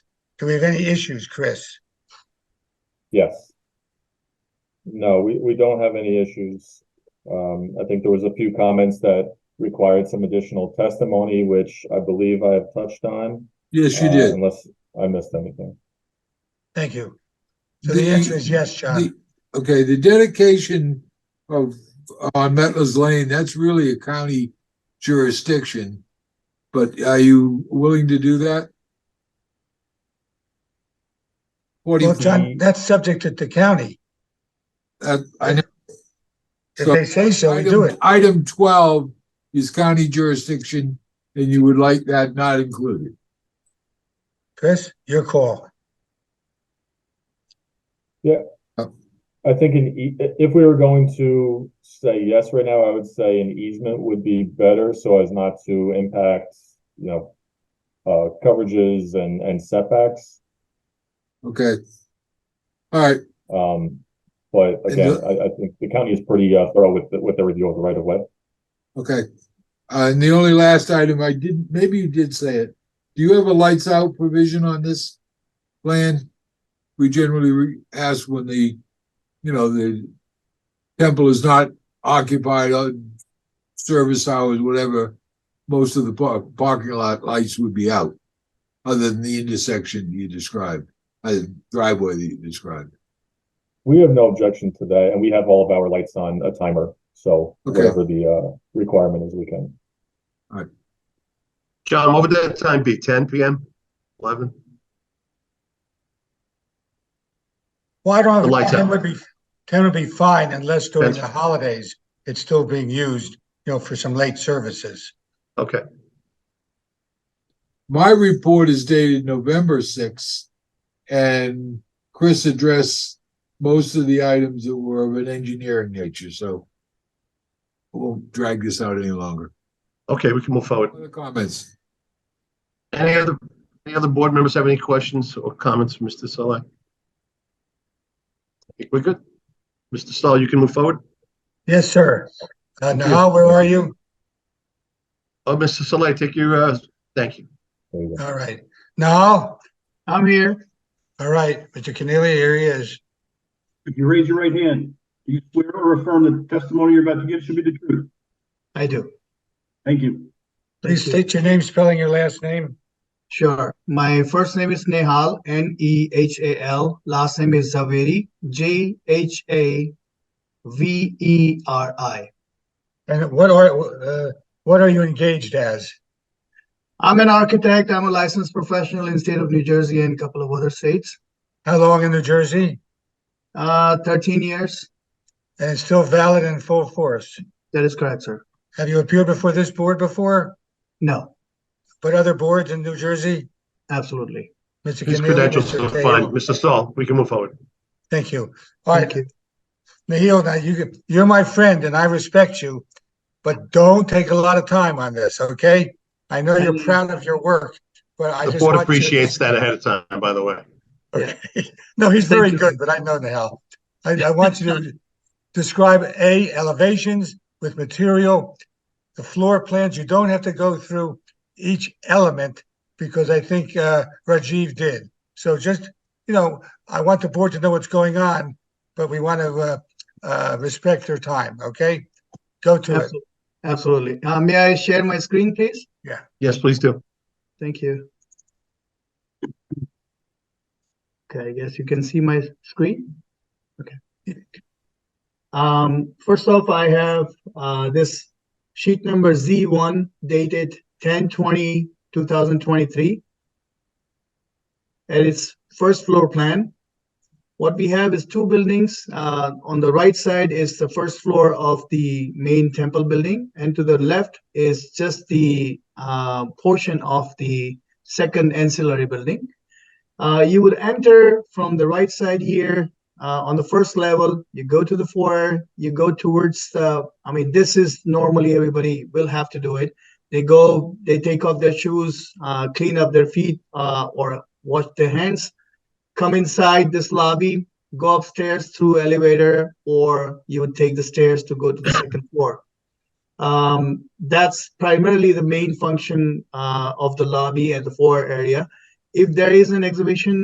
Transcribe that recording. Do we have any issues, Chris? Yes. No, we, we don't have any issues. Um, I think there was a few comments that required some additional testimony, which I believe I have touched on. Yes, you uh, did. Unless I missed anything. Thank you. So the answer is yes, John. The- Okay, the dedication of, on Metlers Lane, that's really a county jurisdiction. But are you willing to do that? Forty, Well, John, that's subject to the county. uh, I know. If they say so, we do it. Item twelve is county jurisdiction, and you would like that not included. Chris, your call. I think an e- if we were going to say yes right now, I would say an easement would be better so as not to impact, you know, uh, coverages and, and setbacks. Okay. All right, Um, but And again, the- I, I think the county is pretty uh, thorough with, the- with their review of the right of way. Okay, uh, and the only last item I didn't, maybe you did say it. Do you have a lights out provision on this plan? We generally re- ask when the, you know, the temple is not occupied on service hours, whatever. Most of the par- parking lot lights would be out, other than the intersection you described, uh, driveway that you described. We have no objection to that, and we have all of our lights on a timer, so Okay. whatever the uh requirement is, we can. John, what would that time be? Ten PM? Eleven? Well, I don't, The lights ten out. would be, ten would be fine unless during the That's- holidays, it's still being used, you know, for some late services. Okay, My report is dated November sixth, and Chris addressed most of the items that were of an engineering nature, so we won't drag this out any longer. okay, we can move forward. Other comments? Any other, any other board members have any questions or comments for Mr. Saleh? I think We're good. Mr. Stahl, you can move forward? Yes, sir. Uh, you. Nahal, where are you? Oh, Mr. Saleh, take your, uh, thank you. there you go. All right. Nahal? I'm here. All right, Mr. Cornelia, here he is. If you raise your right hand, do you swear or affirm that the testimony you're about to give should be the truth? I do. Thank you. Please Thank you. state your name, spelling your last name. Sure. My first name is Nehal, N E H A L. Last name is Zaveri, J H A V E R I. And what are, uh, what are you engaged as? I'm an architect. I'm a licensed professional in state of New Jersey and a couple of other states. How long in New Jersey? Uh, thirteen years. And it's still valid in full force. That is correct, sir. Have you appeared before this board before? No, But other boards in New Jersey? absolutely. Mr. His Cornelia, credentials Mr. are Cahill. fine. Mr. Stahl, we can move forward. Thank you. All Thank right, you. Nahil, now you, can- you're my friend and I respect you, but don't take a lot of time on this, okay? I know you're Thank you. proud of your work, but I The just board want you. appreciates that ahead of time, by the way. Okay. No, he's very Thank you. good, but I know Nahal. I, I want you to describe A, elevations with material, the floor plans. You don't have to go through each element because I think, uh, Rajiv did. So just, you know, I want the board to know what's going on, but we want to, uh, uh, respect their time, okay? Go to it. Absolutely. Absolutely. Uh, may I share my screen, please? Yes, please do. Thank you. Okay, I guess you can see my screen. Okay. Um, first off, I have, uh, this sheet number Z one dated 10-20-2023, And it's first floor plan. What we have is two buildings. Uh, on the right side is the first floor of the main temple building, and to the left is just the uh, portion of the second ancillary building. Uh, you would enter from the right side here uh, on the first level. You go to the foyer. You go towards the. I mean, this is normally everybody will have to do it. They go. They take off their shoes, uh, clean up their feet, uh, or wash their hands come inside this lobby, go upstairs through elevator, or you would take the stairs to go to the second floor. Um, that's primarily the main function uh, of the lobby and the floor area. If there is an exhibition